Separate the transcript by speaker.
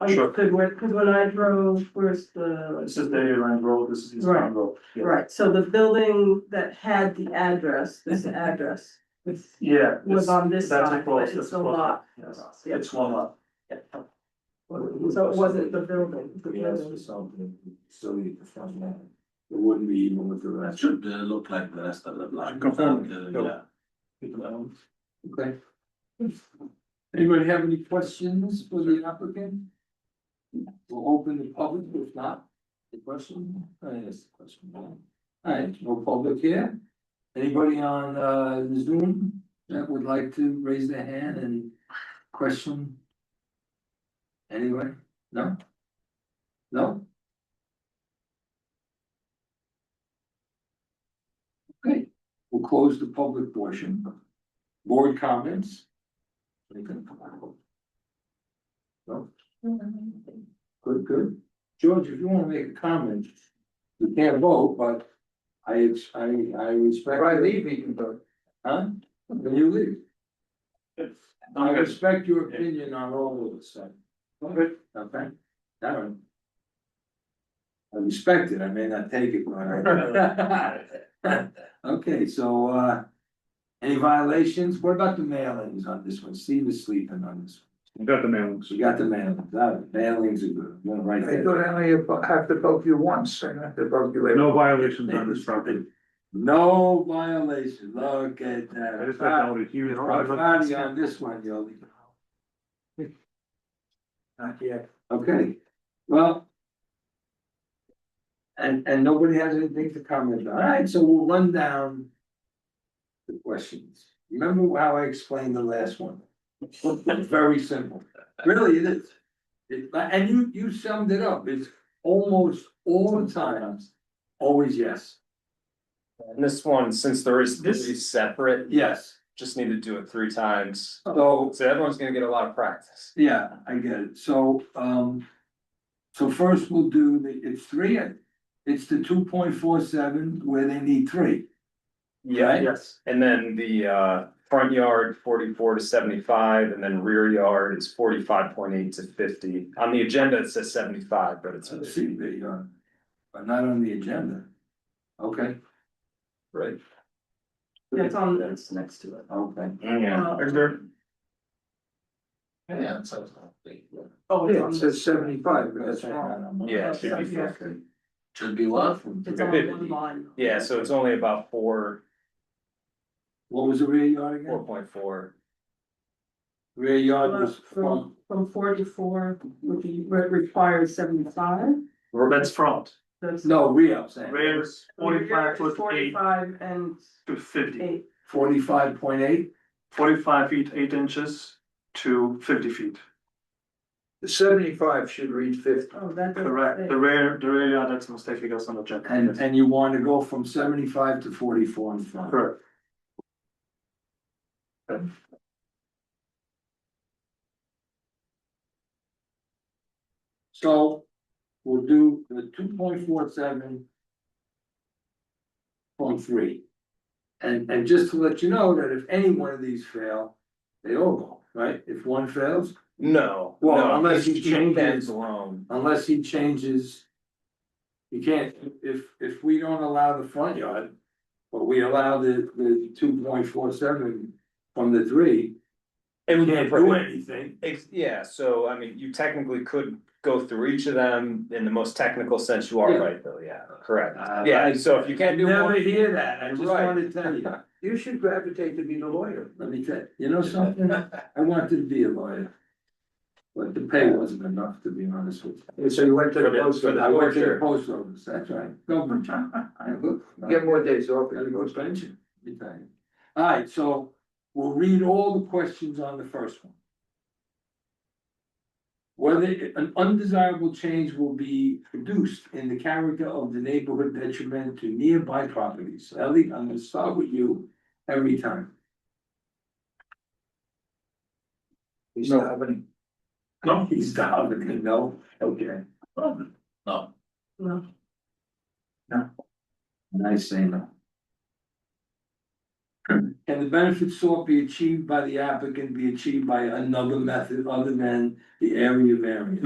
Speaker 1: I
Speaker 2: Sure.
Speaker 1: could, work- cause when I drove, where's the,
Speaker 2: This is Daily Land Road, this is East Town
Speaker 1: Right.
Speaker 2: Road. Yeah.
Speaker 1: right, so the building that had the address, this address. Was
Speaker 2: Yeah.
Speaker 1: was
Speaker 2: this-
Speaker 1: on this
Speaker 2: that's
Speaker 1: side,
Speaker 2: close,
Speaker 1: but
Speaker 2: that's
Speaker 1: it's a
Speaker 2: close.
Speaker 1: lot.
Speaker 2: Yes,
Speaker 1: across, yeah.
Speaker 2: It's one lot.
Speaker 1: So it wasn't the building, the
Speaker 3: We asked for
Speaker 1: building,
Speaker 3: something silly to find out. It wouldn't be even with the
Speaker 4: That
Speaker 3: rest.
Speaker 4: should uh, look like the rest of the block.
Speaker 5: Confirm.
Speaker 4: Uh,
Speaker 3: Go.
Speaker 4: Yeah.
Speaker 3: Okay. Anybody have any questions for the applicant? We'll open the public, if not, the question, uh, yes, the question. Alright, no public here. Anybody on uh Zoom that would like to raise their hand and question? Anyway, no? No? Okay, we'll close the public portion. Board comments? Anything? No? Good, good. George, if you wanna make a comment, you can't vote, but I, I, I respect.
Speaker 5: If I leave, he can vote.
Speaker 3: Huh? When you leave, I
Speaker 2: Okay.
Speaker 3: respect your opinion on all of this, so.
Speaker 2: Good.
Speaker 3: Okay, that one. I respect it, I may not take it, but I. Okay, so, uh. Any violations? What about the mailings on this one? Steve is sleeping on this.
Speaker 5: Got the mailings.
Speaker 3: So you got the mailings, uh, mailings are good, I'm gonna write
Speaker 5: I
Speaker 3: that.
Speaker 5: thought I only have to vote you once, I have to vote you later. No violations
Speaker 3: on
Speaker 5: this property.
Speaker 3: No violation, look at that.
Speaker 5: noted, you
Speaker 3: Property on this one, yo.
Speaker 5: Not yet.
Speaker 3: Okay, well. And, and nobody has anything to comment on, alright, so we'll run down. The questions, remember how I explained the last one? Very simple, really it is. It, and you, you summed it up, it's almost all the times, always yes,
Speaker 6: And this one, since there is
Speaker 2: This-
Speaker 6: three separate,
Speaker 3: yes,
Speaker 6: just need to do it three times.
Speaker 3: so.
Speaker 6: So everyone's gonna get a lot of practice.
Speaker 3: Yeah, I get it, so, um. So first we'll do the, it's three, it's the two point four seven where they need three, right?
Speaker 2: Yes,
Speaker 6: And then the uh front yard forty-four to seventy-five, and then rear yard is forty-five point eight to fifty. On the agenda, it says seventy-five, but it's.
Speaker 3: So the CB on, but not on the agenda. Okay,
Speaker 6: Right.
Speaker 1: that's on, that's next to it.
Speaker 3: okay.
Speaker 1: Yeah.
Speaker 4: Yeah, it sounds like.
Speaker 1: Oh, it's on,
Speaker 5: It
Speaker 1: the-
Speaker 5: says seventy-five, but that's
Speaker 3: That's
Speaker 5: wrong.
Speaker 3: wrong.
Speaker 6: Yeah, it
Speaker 1: should be
Speaker 3: Okay.
Speaker 4: Should be love.
Speaker 1: it's on one line.
Speaker 6: Yeah, so it's only about four,
Speaker 3: What was the rear yard
Speaker 6: four
Speaker 3: again?
Speaker 6: point four.
Speaker 3: Rear yard was
Speaker 1: Uh, From,
Speaker 3: from,
Speaker 1: from forty-four would be, re- requires seventy-five,
Speaker 2: that's front,
Speaker 1: that's.
Speaker 3: no, rear, I'm saying.
Speaker 2: rears
Speaker 1: Rear
Speaker 2: forty-five
Speaker 1: is
Speaker 2: foot eight
Speaker 1: Forty-five and
Speaker 2: to fifty.
Speaker 1: eight,
Speaker 3: Forty-five point eight,
Speaker 2: Forty-five feet, eight inches to fifty feet,
Speaker 5: The Seventy-five should read fifty.
Speaker 1: oh, that doesn't
Speaker 2: correct,
Speaker 1: say.
Speaker 2: the rear, the rear yard, that's a mistake because on the check.
Speaker 3: and, and you want to go from seventy-five to forty-four in front.
Speaker 2: Correct,
Speaker 3: So we'll do the two point four seven. Point three. And and just to let you know that if any one of these fail, they all go, right? If one fails,
Speaker 6: No.
Speaker 3: Well,
Speaker 6: no,
Speaker 3: unless you change it.
Speaker 6: Stands alone.
Speaker 3: unless he changes. You can't, if if we don't allow the front yard, but we allow the the two point four seven from the three,
Speaker 6: It
Speaker 3: we
Speaker 6: would
Speaker 3: can't do anything.
Speaker 6: Ex- yeah, so I mean, you technically could go through each of them in the most technical sense, you
Speaker 3: Yeah.
Speaker 6: are right, Bill, yeah, correct.
Speaker 3: Uh,
Speaker 6: Yeah,
Speaker 3: I-
Speaker 6: so if you can't do
Speaker 3: Never
Speaker 6: one,
Speaker 3: hear that, I just
Speaker 6: Right.
Speaker 3: wanna tell you.
Speaker 5: You should gravitate to be the lawyer.
Speaker 3: Let me tell you, you know something, I wanted to be a lawyer. But the pay wasn't enough, to be honest with you.
Speaker 5: So you went to the
Speaker 6: But it-
Speaker 5: post,
Speaker 6: but
Speaker 3: I
Speaker 5: office.
Speaker 3: went to the
Speaker 6: Sure.
Speaker 3: post office, that's right, government job, I look.
Speaker 5: get more days off.
Speaker 3: Gotta go to pension, let me tell you. Alright, so we'll read all the questions on the first one. Whether an undesirable change will be produced in the character of the neighborhood detriment to nearby properties. Ellie, I'm gonna start with you every time.
Speaker 5: He's not having.
Speaker 2: no,
Speaker 3: He's down, no, okay.
Speaker 4: No,
Speaker 1: No.
Speaker 3: And I say no. Can the benefits sought be achieved by the applicant be achieved by another method other than the area variance?